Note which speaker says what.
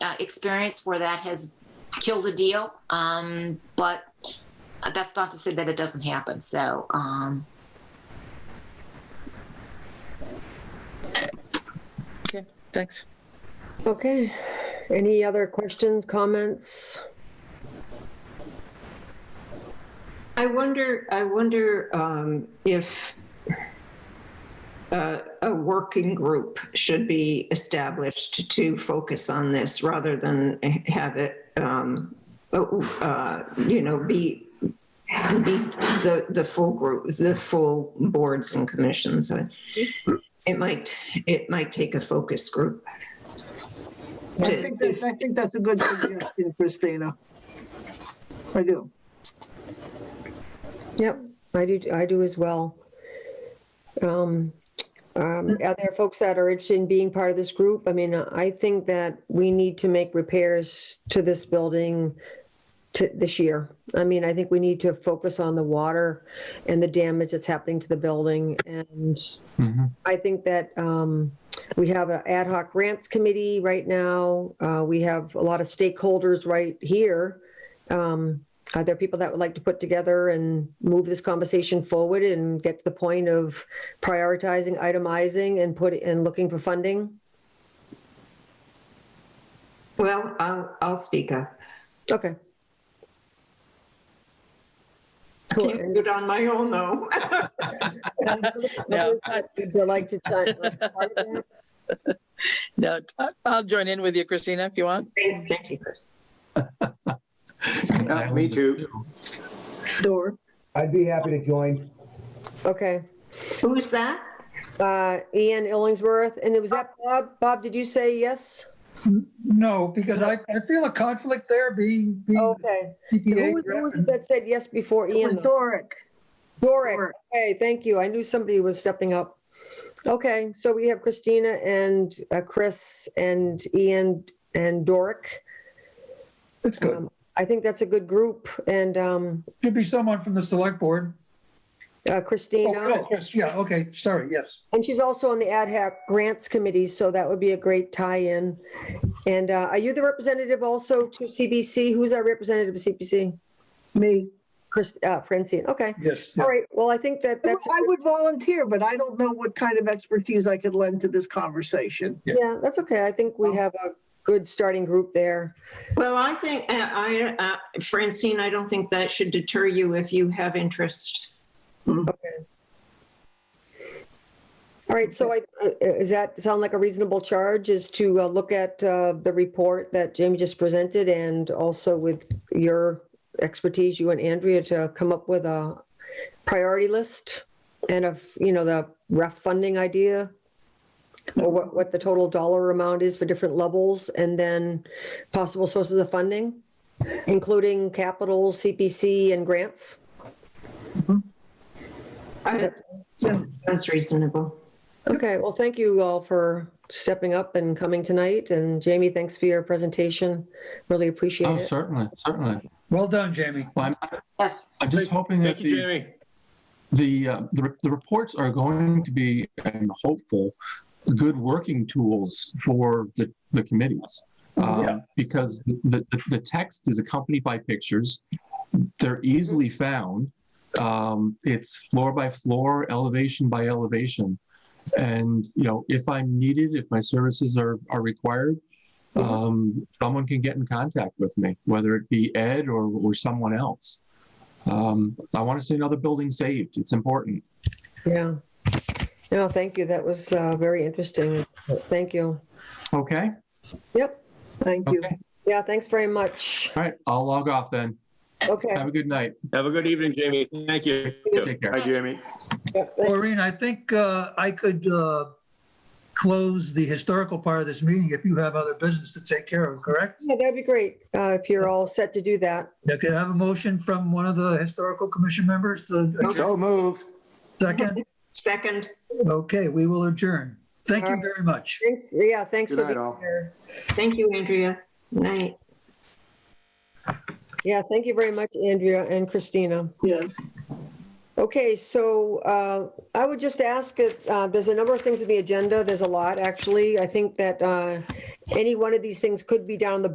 Speaker 1: uh, experience where that has killed a deal. Um, but that's not to say that it doesn't happen. So, um,
Speaker 2: Okay, thanks.
Speaker 3: Okay, any other questions, comments?
Speaker 4: I wonder, I wonder um, if uh, a working group should be established to focus on this rather than have it, um, oh, uh, you know, be, be the, the full group, the full boards and commissions. Uh, It might, it might take a focus group.
Speaker 5: I think that's, I think that's a good suggestion, Christina. I do.
Speaker 3: Yep, I do, I do as well. Um, um, Are there folks that are interested in being part of this group? I mean, I think that we need to make repairs to this building to, this year. I mean, I think we need to focus on the water and the damage that's happening to the building. And I think that um, we have an ad hoc grants committee right now. Uh, We have a lot of stakeholders right here. Um, are there people that would like to put together and move this conversation forward and get to the point of prioritizing, itemizing, and put, and looking for funding?
Speaker 4: Well, I'll, I'll speak up.
Speaker 3: Okay. Cool.
Speaker 4: Can't do it on my own though.
Speaker 3: Others that Would you like to chime- like, part of that?
Speaker 2: No, I- I'll join in with you, Christina, if you want.
Speaker 4: Thank you, Chris.
Speaker 6: Yeah, me too.
Speaker 5: Door.
Speaker 7: I'd be happy to join.
Speaker 3: Okay.
Speaker 4: Who is that?
Speaker 3: Uh, Ian Illingsworth, and it was that Bob? Bob, did you say yes?
Speaker 8: No, because I, I feel a conflict there being, being
Speaker 3: Okay. Oh, Who
Speaker 8: CPA.
Speaker 3: was, who was
Speaker 8: director.
Speaker 3: it that said yes before
Speaker 5: It was
Speaker 3: Ian? though?
Speaker 5: Doric.
Speaker 3: Doric. Okay, thank you. I knew somebody was stepping up. Okay, so we have Christina and uh, Chris and Ian and Doric.
Speaker 8: It's good.
Speaker 3: Um, I think that's a good group. And um,
Speaker 8: Should be someone from the select board.
Speaker 3: uh,
Speaker 8: Oh,
Speaker 3: Christina,
Speaker 8: oh, yes, yeah, okay, sorry, yes.
Speaker 3: and she's also on the Ad Hoc Grants Committee, so that would be a great tie-in. And uh, are you the representative also to CBC? Who's our representative of CBC?
Speaker 5: Me.
Speaker 3: Chris, uh, Francine, okay.
Speaker 8: Yes, yeah.
Speaker 3: All right, well, I think that that's,
Speaker 5: I would volunteer, but I don't know what kind of expertise I could lend to this conversation.
Speaker 3: yeah, that's okay. I think we have a good starting group there.
Speaker 4: Well, I think, uh, I, uh, Francine, I don't think that should deter you if you have interest.
Speaker 3: All right, so I, uh, is that sound like a reasonable charge is to uh, look at uh, the report that Jamie just presented and also with your expertise, you and Andrea, to come up with a priority list and of, you know, the rough funding idea? Or what, what the total dollar amount is for different levels and then possible sources of funding, including capital, CPC and grants?
Speaker 4: I- so That's reasonable.
Speaker 3: Okay, well, thank you all for stepping up and coming tonight. And Jamie, thanks for your presentation. Really
Speaker 9: Oh,
Speaker 3: appreciate it.
Speaker 9: certainly, certainly.
Speaker 8: Well done, Jamie.
Speaker 9: Well, I'm,
Speaker 1: yes,
Speaker 9: I'm just hoping that
Speaker 6: Thank you,
Speaker 9: the,
Speaker 6: Jamie.
Speaker 9: the, uh, the, re- the reports are going to be, I'm hopeful, good working tools for the, the committees. Um,
Speaker 8: Yeah.
Speaker 9: Because the, the, the text is accompanied by pictures. They're easily
Speaker 6: Mm-hmm.
Speaker 9: found. Um, it's floor by floor, elevation by elevation. And, you know, if I'm needed, if my services are, are required,
Speaker 6: Mm-hmm.
Speaker 9: um, someone can get in contact with me, whether it be Ed or, or someone else. Um, I want to see another building saved. It's important.
Speaker 3: Yeah. No, thank you. That was uh, very interesting. Thank you.
Speaker 9: Okay.
Speaker 3: Yep.
Speaker 5: Thank you.
Speaker 9: Okay.
Speaker 3: Yeah, thanks very much.
Speaker 9: All right. I'll log off then.
Speaker 3: Okay.
Speaker 9: Have a good night.
Speaker 6: Have a good evening, Jamie. Thank you.
Speaker 9: Take care.
Speaker 6: Hi, Jamie.
Speaker 3: Yep.
Speaker 8: Maureen, I think uh, I could uh, close the historical part of this meeting if you have other business to take care of, correct?
Speaker 3: Yeah, that'd be great uh, if you're all set to do that.
Speaker 8: Yeah, Could I have a motion from one of the historical commission members to
Speaker 6: So moved.
Speaker 8: second?
Speaker 4: Second,
Speaker 8: Okay, we will adjourn. Thank you very much.
Speaker 3: Thanks. Yeah, thanks
Speaker 6: Good
Speaker 3: for
Speaker 6: night,
Speaker 3: being
Speaker 6: all.
Speaker 3: here.
Speaker 4: thank you, Andrea. Night.
Speaker 3: Yeah, thank you very much, Andrea and Christina.
Speaker 5: Yes.
Speaker 3: Okay, so uh, I would just ask, it, uh, there's a number of things in the agenda, there's a lot, actually. I think that uh, any one of these things could be down the